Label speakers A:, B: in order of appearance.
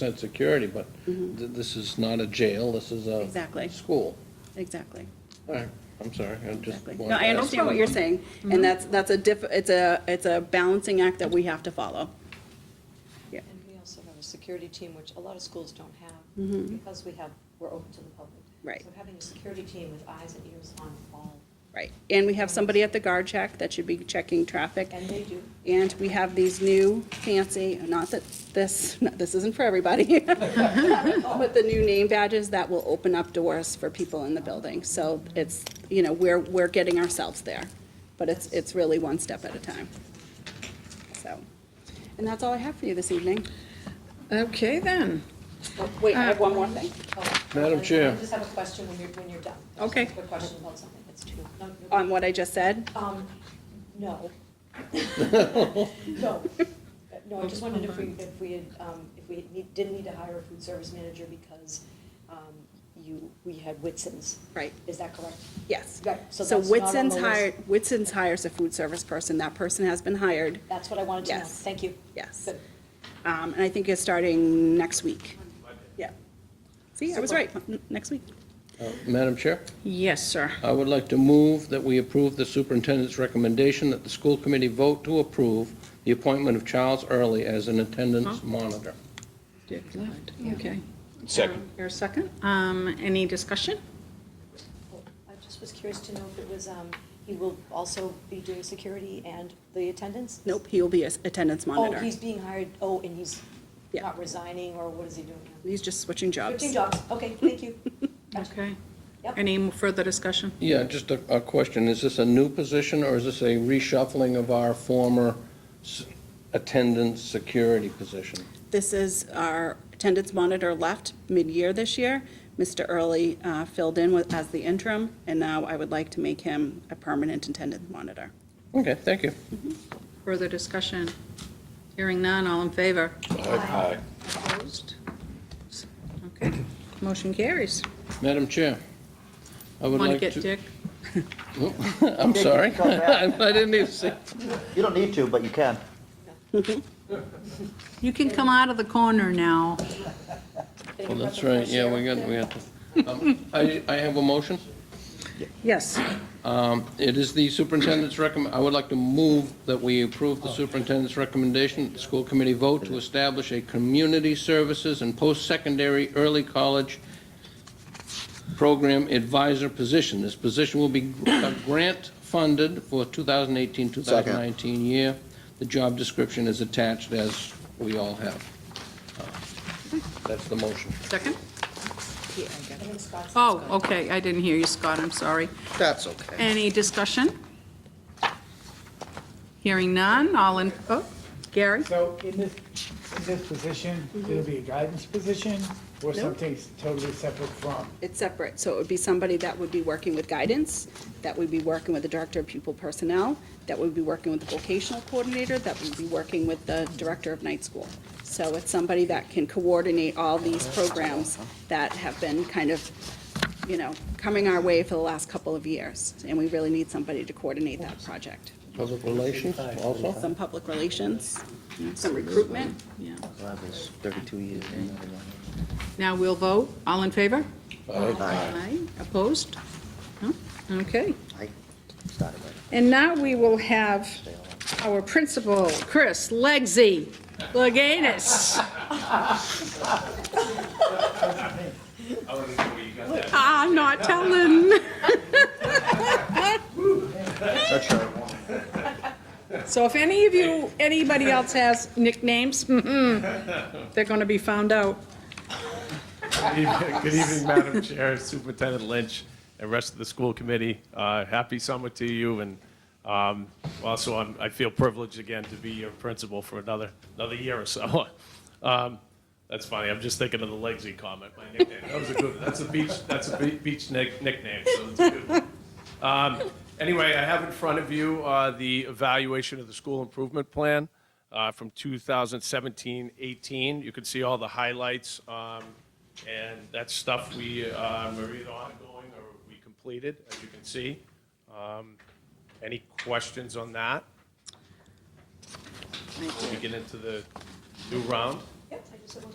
A: said security, but th- this is not a jail, this is a.
B: Mm-hmm. Exactly.
A: School.
B: Exactly,
A: All right, I'm sorry, I just.
B: exactly.
A: wanted
B: No,
A: to
B: I
A: ask.
B: understand what you're saying, and that's, that's a diff, it's a, it's a balancing act that we have to follow. Yeah,
C: And we also have a security team, which a lot of schools don't have, because we have, we're open to the public.
B: Mm-hmm. Right.
C: So having a security team with eyes and ears on all,
B: right. And we have somebody at the guard check that should be checking traffic.
C: and they do.
B: And we have these new fancy, not that this, not- this isn't for everybody, but the new name badges that will open up doors for people in the building. So it's, you know, we're, we're getting ourselves there, but it's, it's really one step at a time. So, and that's all I have for you this evening.
D: Okay, then.
B: Oh, Wait, I have one more thing.
C: Oh,
A: Madam
C: I-
A: Chair.
C: I just have a question when you're, when you're done. I just
B: Okay.
C: have A question about something, it's two. no, you're
B: On what I just said,
C: Um, no. No, no, I just wondered if we, if we had, um, if we need- didn't need to hire a food service manager because, um, you, we had Whitson's.
B: Right.
C: Is that correct?
B: yes.
C: Right, so
B: So
C: that's not on the
B: Whitson's
C: list.
B: hired, Whitson's hires a food service person. That person has been hired,
C: That's what I wanted to know,
B: Yes.
C: thank you.
B: yes.
C: Good.
B: Um, And I think it's starting next week. Yeah. See, I was right, N- next week.
A: Uh, Madam Chair,
D: Yes, sir.
A: I would like to move that we approve the superintendent's recommendation that the school committee vote to approve the appointment of Charles Early as an attendance monitor.
D: Dick left, okay.
E: Second.
D: Your second. Um, any discussion?
C: Well, I just was curious to know if it was, um, he will also be doing security and the attendance?
B: Nope, he will be an attendance
C: Oh,
B: monitor.
C: he's being hired, oh, and he's
B: Yeah.
C: not resigning, or what is he doing now?
B: He's just switching jobs.
C: Fifteen jobs, okay, thank you. Gotcha.
D: Okay.
C: Yep.
D: Any further discussion?
A: Yeah, just a, a question, is this a new position, or is this a reshuffling of our former s- attendance security position?
B: This is our attendance monitor left mid-year this year. Mr. Early uh, filled in with- as the interim, and now I would like to make him a permanent attendance monitor.
A: Okay, thank you.
D: Further discussion? Hearing none, all in favor?
E: Aye.
D: Opposed? Okay, motion carries.
A: Madam Chair, I would
D: Want to
A: like to.
D: get Dick?
A: I'm sorry,
F: go back.
A: I didn't even see.
F: You don't need to, but you can.
D: You can come out of the corner now.
A: Well, that's right, yeah, we got, we got. to- um, I, I have a motion.
D: Yes.
A: Um, It is the superintendent's recommend, I would like to move that we approve the superintendent's recommendation, that the school committee vote to establish a community services and post-secondary early college program advisor position. This position will be grant-funded for 2018-2019 year. The job description is attached, as we all have. Uh, That's the motion.
D: Second? Oh, okay, I didn't hear you, Scott, I'm sorry.
G: That's okay.
D: Any discussion? Hearing none, all in, oh, Gary?
H: So in this, in this position, it'll be a guidance position or something totally separate from?
B: It's separate, so it would be somebody that would be working with guidance, that would be working with the director of pupil personnel, that would be working with the vocational coordinator, that would be working with the director of night school. So it's somebody that can coordinate all these programs that have been kind of, you know, coming our way for the last couple of years, and we really need somebody to coordinate that project.
A: Public relations also?
B: Some public relations, some recruitment,
D: Yeah.
G: Well, that was 32 years.
D: Now we'll vote. All in favor? Aye. Opposed? No? Okay.
G: I started right.
D: And now we will have our principal, Chris Legsy Leganis. Ah, I'm not telling. So if any of you, anybody else has nicknames, mhm, they're going to be found out.
I: Good evening- Good evening, Madam Chair, Superintendent Lynch, and rest of the school committee. Uh, Happy summer to you, and um, also, I'm- I feel privileged again to be your principal for another, another year or so. Um, That's funny, I'm just thinking of the Legsy comment, my nickname. That was a good, that's a beach, that's a be- beach nick- nickname, so it's a good one. Um, Anyway, I have in front of you uh, the evaluation of the school improvement plan uh, from 2017-18. You can see all the highlights, um, and that's stuff we um, are either ongoing or we completed, as you can see. Um, Any questions on that? We get into the new round.